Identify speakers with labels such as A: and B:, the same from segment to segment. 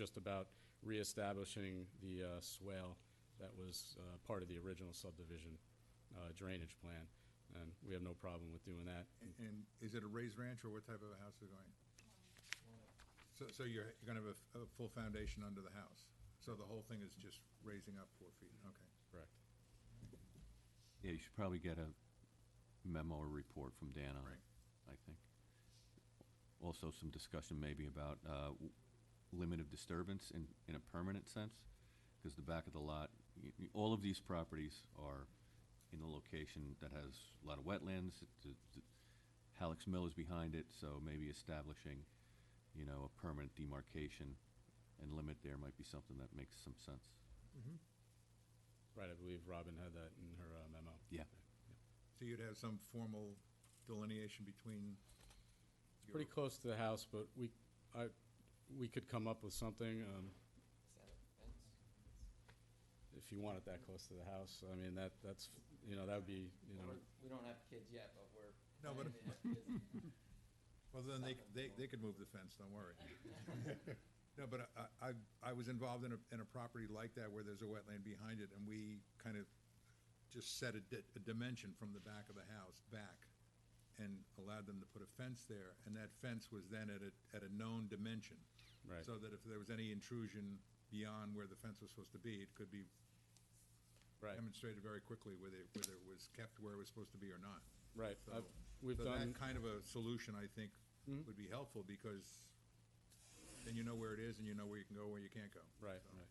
A: just about reestablishing the uh, swale that was uh, part of the original subdivision uh, drainage plan, and we have no problem with doing that.
B: And- And is it a raised ranch, or what type of a house is going? So, so you're, you're gonna have a f- a, full foundation under the house? So the whole thing is just raising up four feet, okay.
A: Correct.
C: Yeah, you should probably get a memo or report from Dan on
B: Right.
C: it, I think. Also, some discussion maybe about uh, w- limit of disturbance in, in a permanent sense, because the back of the lot, y- y- all of these properties are in a location that has a lot of wetlands. It- the- the- Halleck's Mill is behind it, so maybe establishing, you know, a permanent demarcation and limit there might be something that makes some sense.
A: Right, I believe Robin had that in her uh, memo.
C: Yeah.
B: So you'd have some formal delineation between? your-
A: Pretty close to the house, but we, I, we could come up with something, um, if you want it that close to the house. I mean, that, that's, you know, that would be, you know,
D: We don't have kids yet, but we're.
B: No, but-
D: planning to have kids.
B: Well, then they, c- they, they could move the fence, don't worry. No, but I, I, I was involved in a, in a property like that where there's a wetland behind it, and we kind of just set a, di- a dimension from the back of the house back and allowed them to put a fence there, and that fence was then at a, at a known dimension.
A: Right.
B: So that if there was any intrusion beyond where the fence was supposed to be, it could be
A: right,
B: demonstrated very quickly whether, whether it was kept where it was supposed to be or not.
A: right.
B: So-
A: I've- We've
B: so
A: done, Mm-hmm.
B: that kind of a solution, I think, would be helpful because then you know where it is and you know where you can go, where you can't go.
A: right, right.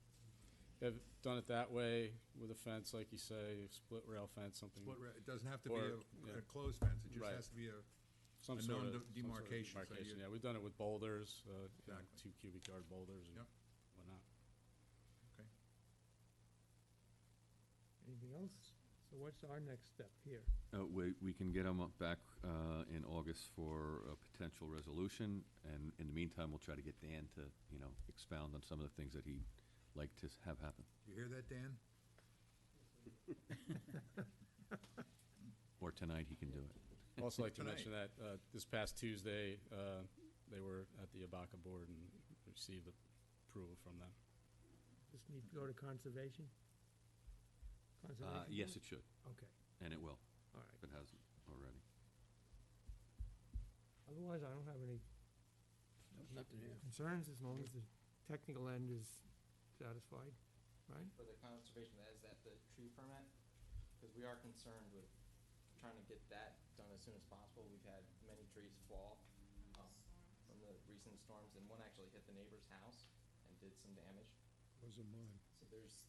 A: Have done it that way with a fence, like you say, split rail fence, something,
E: Mm-hmm.
B: But re- it doesn't have to be
A: Or,
B: a-
A: yeah.
B: a closed fence, it just
A: Right.
B: has to be a,
A: some
B: a
A: sort
B: known
A: of.
B: de-
A: some sort of
B: demarcation, so
A: demarcation.
B: you-
A: Yeah, we've done it with boulders, uh, you know,
B: Exactly.
A: two cubic yard boulders and
B: Yep.
A: whatnot.
F: Anything else? So what's our next step here?
C: Uh, we, we can get them back, uh, in August for a potential resolution, and in the meantime, we'll try to get Dan to, you know, expound on some of the things that he'd like to s- have happen,
B: you hear that, Dan?
C: or tonight he can do it.
A: Also like to
B: Tonight.
A: mention that, uh, this past Tuesday, uh, they were at the Abaca Board and received approval from them.
F: Just need to go to conservation?
C: Uh,
F: Conservation?
C: yes, it should,
F: Board? Okay,
C: and it will,
F: all right.
C: if it hasn't already.
F: Otherwise, I don't have any
D: Nothing here.
F: concerns as long as the technical end is satisfied, right?
D: For the conservation, is that the tree permit? Because we are concerned with trying to get that done as soon as possible. We've had many trees fall um, from the recent storms, and one actually hit the neighbor's house and did some damage.
G: Wasn't mine.
D: So there's,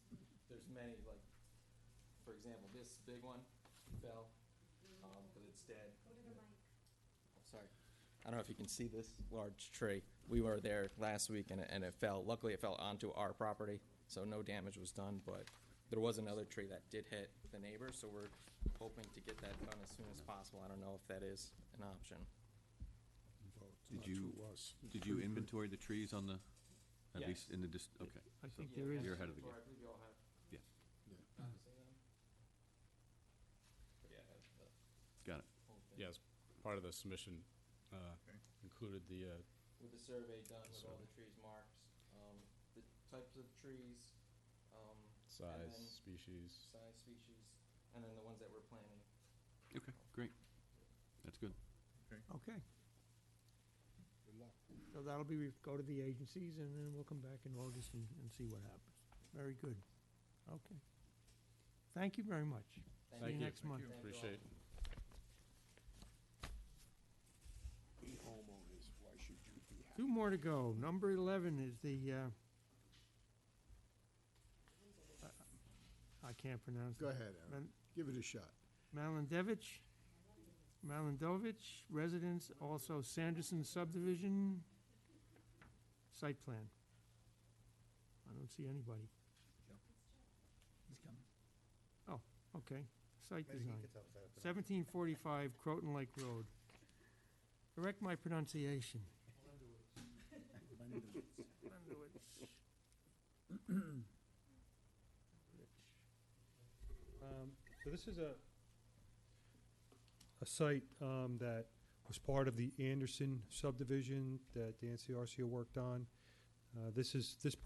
D: there's many, like, for example, this big one fell, um, but it's dead. I'm sorry. I don't know if you can see this large tree. We were there last week and it, and it fell. Luckily, it fell onto our property, so no damage was done, but there was another tree that did hit the neighbor, so we're hoping to get that done as soon as possible. I don't know if that is an option.
G: Well, it's
C: Did
G: not
C: you-
G: to us.
C: Did you inventory the trees on the, at least
D: Hmm. Yes.
C: in the dis- okay. so-
F: I think there is,
C: You're ahead of the game.
D: I believe you all have.
C: Yeah.
G: Yeah.
D: copies of them. But yeah, that's the
C: Got it,
D: whole thing.
A: Yes, part of the submission, uh,
B: Okay.
A: included the, uh,
D: with the survey done with all the trees marked, um, the types of trees, um, and
A: size,
D: then
A: species.
D: size, species, and then the ones that we're planning.
C: okay, great, that's good.
F: okay.
G: Good luck.
F: So that'll be, re- go to the agencies and then we'll come back in August and, and see what happens. Very good. Okay. Thank you very much.
A: Thank
F: See
A: you.
F: you next month.
D: Thank you all.
A: Appreciate it.
G: We homeowners, why should you be happy?
F: Two more to go. Number 11 is the, uh, I- I can't pronounce it.
G: Go ahead, Aaron,
F: Man-
G: give it a shot.
F: Malandevich, Malandovich, residence, also Sanderson subdivision, site plan. I don't see anybody.
H: He's coming.
F: Oh, Okay, site design.
H: It's outside.
F: 1745 Croton Lake Road. Correct my pronunciation.
E: Um, So this is a, a site um, that was part of the Anderson subdivision that the NCRCO worked on. Uh, This is, this